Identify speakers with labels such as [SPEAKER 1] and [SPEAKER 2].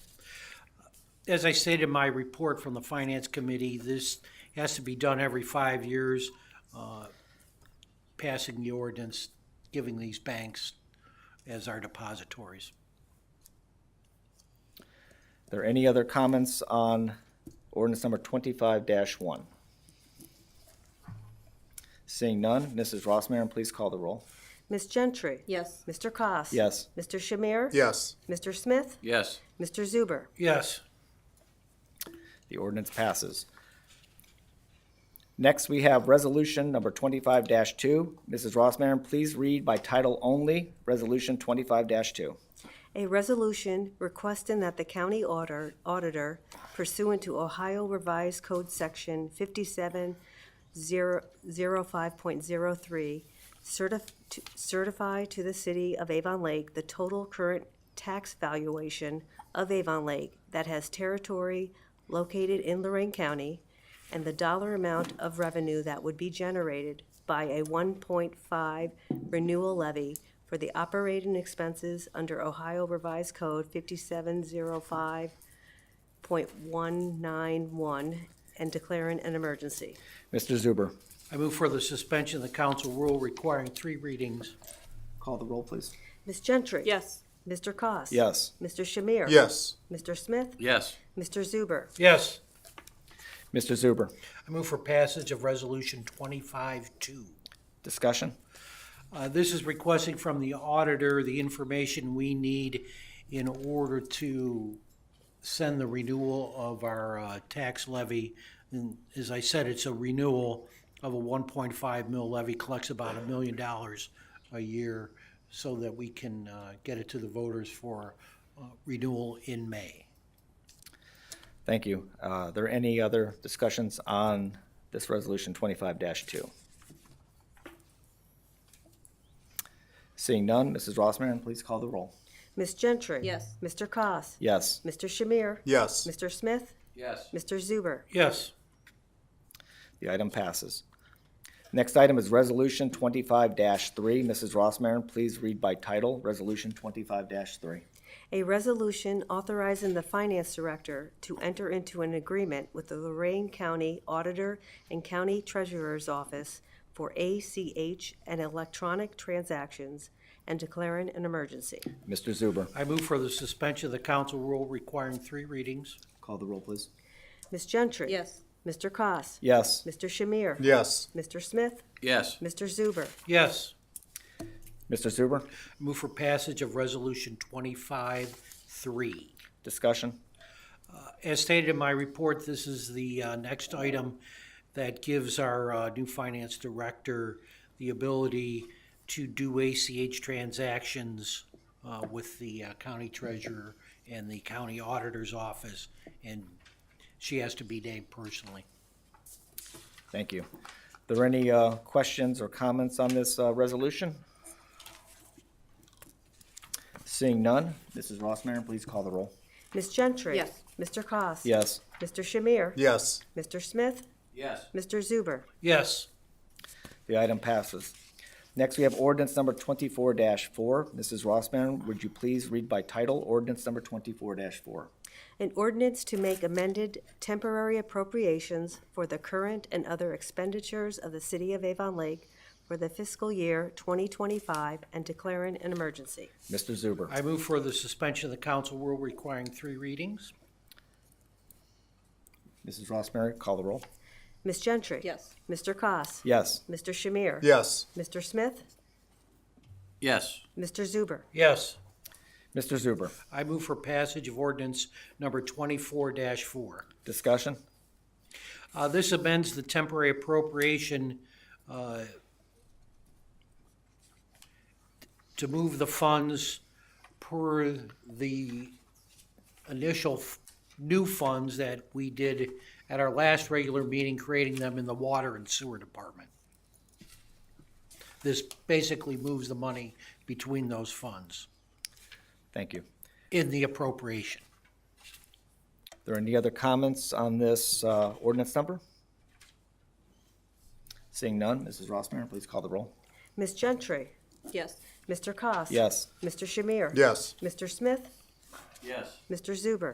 [SPEAKER 1] as I stated in my report from the Finance Committee, this has to be done every five years, uh, passing the ordinance, giving these banks as our depositories.
[SPEAKER 2] there any other comments on ordinance number twenty-five one? Seeing none, Mrs. Rossmarin, please call the roll.
[SPEAKER 3] Ms. Gentry?
[SPEAKER 4] Yes.
[SPEAKER 3] Mr. Koss.
[SPEAKER 2] Yes.
[SPEAKER 3] Mr. Shamir?
[SPEAKER 5] yes,
[SPEAKER 3] Mr. Smith?
[SPEAKER 6] yes,
[SPEAKER 3] Mr. Zuber?
[SPEAKER 1] Yes,
[SPEAKER 2] The ordinance passes. Next, we have resolution number twenty-five two. Mrs. Rossmarin, please read by title only, resolution twenty-five two.
[SPEAKER 3] A resolution requesting that the county auditor- auditor pursuant to Ohio Revised Code Section 5705.03 certif- to- certify to the city of Avon Lake the total current tax valuation of Avon Lake that has territory located in Lorraine County and the dollar amount of revenue that would be generated by a 1.5 renewal levy for the operating expenses under Ohio Revised Code 5705.191 and declaring an emergency.
[SPEAKER 2] Mr. Zuber.
[SPEAKER 1] I move for the suspension of the council rule requiring three readings.
[SPEAKER 2] Call the roll, please.
[SPEAKER 3] Ms. Gentry?
[SPEAKER 4] Yes.
[SPEAKER 3] Mr. Koss.
[SPEAKER 2] Yes.
[SPEAKER 3] Mr. Shamir?
[SPEAKER 5] yes,
[SPEAKER 3] Mr. Smith?
[SPEAKER 6] yes,
[SPEAKER 3] Mr. Zuber?
[SPEAKER 1] Yes,
[SPEAKER 2] Mr. Zuber.
[SPEAKER 1] I move for passage of Resolution twenty-five two.
[SPEAKER 2] Discussion?
[SPEAKER 1] Uh, This is requesting from the auditor the information we need in order to send the renewal of our uh, tax levy. And as I said, it's a renewal of a 1.5 mil levy, collects about a million dollars a year so that we can uh, get it to the voters for uh, renewal in May.
[SPEAKER 2] Thank you. Uh, Are there any other discussions on this resolution twenty-five two? Seeing none, Mrs. Rossmarin, please call the roll.
[SPEAKER 3] Ms. Gentry?
[SPEAKER 4] Yes.
[SPEAKER 3] Mr. Koss.
[SPEAKER 2] Yes.
[SPEAKER 3] Mr. Shamir?
[SPEAKER 5] yes,
[SPEAKER 3] Mr. Smith?
[SPEAKER 6] yes,
[SPEAKER 3] Mr. Zuber?
[SPEAKER 1] Yes,
[SPEAKER 2] The item passes. Next item is Resolution twenty-five three. Mrs. Rossmarin, please read by title, Resolution twenty-five three.
[SPEAKER 3] A resolution authorizing the finance director to enter into an agreement with the Lorraine County Auditor and County Treasurer's Office for ACH and electronic transactions and declaring an emergency.
[SPEAKER 2] Mr. Zuber.
[SPEAKER 1] I move for the suspension of the council rule requiring three readings.
[SPEAKER 2] Call the roll, please.
[SPEAKER 3] Ms. Gentry?
[SPEAKER 4] Yes.
[SPEAKER 3] Mr. Koss.
[SPEAKER 2] Yes.
[SPEAKER 3] Mr. Shamir?
[SPEAKER 5] yes,
[SPEAKER 3] Mr. Smith?
[SPEAKER 6] yes,
[SPEAKER 3] Mr. Zuber?
[SPEAKER 1] Yes,
[SPEAKER 2] Mr. Zuber.
[SPEAKER 1] move for passage of Resolution twenty-five three.
[SPEAKER 2] Discussion?
[SPEAKER 1] As stated in my report, this is the uh, next item that gives our uh, new finance director the ability to do ACH transactions uh, with the uh, county treasurer and the county auditor's office, and she has to be named personally.
[SPEAKER 2] Thank you. Are there any uh, questions or comments on this uh, resolution? Seeing none, Mrs. Rossmarin, please call the roll.
[SPEAKER 3] Ms. Gentry?
[SPEAKER 4] Yes.
[SPEAKER 3] Mr. Koss.
[SPEAKER 2] Yes.
[SPEAKER 3] Mr. Shamir?
[SPEAKER 5] yes,
[SPEAKER 3] Mr. Smith?
[SPEAKER 6] yes,
[SPEAKER 3] Mr. Zuber?
[SPEAKER 1] Yes,
[SPEAKER 2] The item passes. Next, we have ordinance number twenty-four four. Mrs. Rossmarin, would you please read by title, ordinance number twenty-four four?
[SPEAKER 3] An ordinance to make amended temporary appropriations for the current and other expenditures of the City of Avon Lake for the fiscal year 2025 and declaring an emergency.
[SPEAKER 2] Mr. Zuber.
[SPEAKER 1] I move for the suspension of the council rule requiring three readings.
[SPEAKER 2] Mrs. Rossmarin, call the roll.
[SPEAKER 3] Ms. Gentry?
[SPEAKER 4] Yes.
[SPEAKER 3] Mr. Koss.
[SPEAKER 2] Yes.
[SPEAKER 3] Mr. Shamir?
[SPEAKER 5] yes,
[SPEAKER 3] Mr. Smith?
[SPEAKER 6] yes,
[SPEAKER 3] Mr. Zuber?
[SPEAKER 1] Yes,
[SPEAKER 2] Mr. Zuber.
[SPEAKER 1] I move for passage of ordinance number twenty-four four.
[SPEAKER 2] Discussion?
[SPEAKER 1] Uh, this amends the temporary appropriation, uh, to move the funds per the initial f- new funds that we did at our last regular meeting, creating them in the water and sewer department. This basically moves the money between those funds
[SPEAKER 2] Thank you.
[SPEAKER 1] in the appropriation.
[SPEAKER 2] There any other comments on this uh, ordinance number? Seeing none, Mrs. Rossmarin, please call the roll.
[SPEAKER 3] Ms. Gentry?
[SPEAKER 4] Yes.
[SPEAKER 3] Mr. Koss.
[SPEAKER 2] Yes.
[SPEAKER 3] Mr. Shamir?
[SPEAKER 5] yes,
[SPEAKER 3] Mr. Smith?
[SPEAKER 6] yes,
[SPEAKER 3] Mr. Zuber?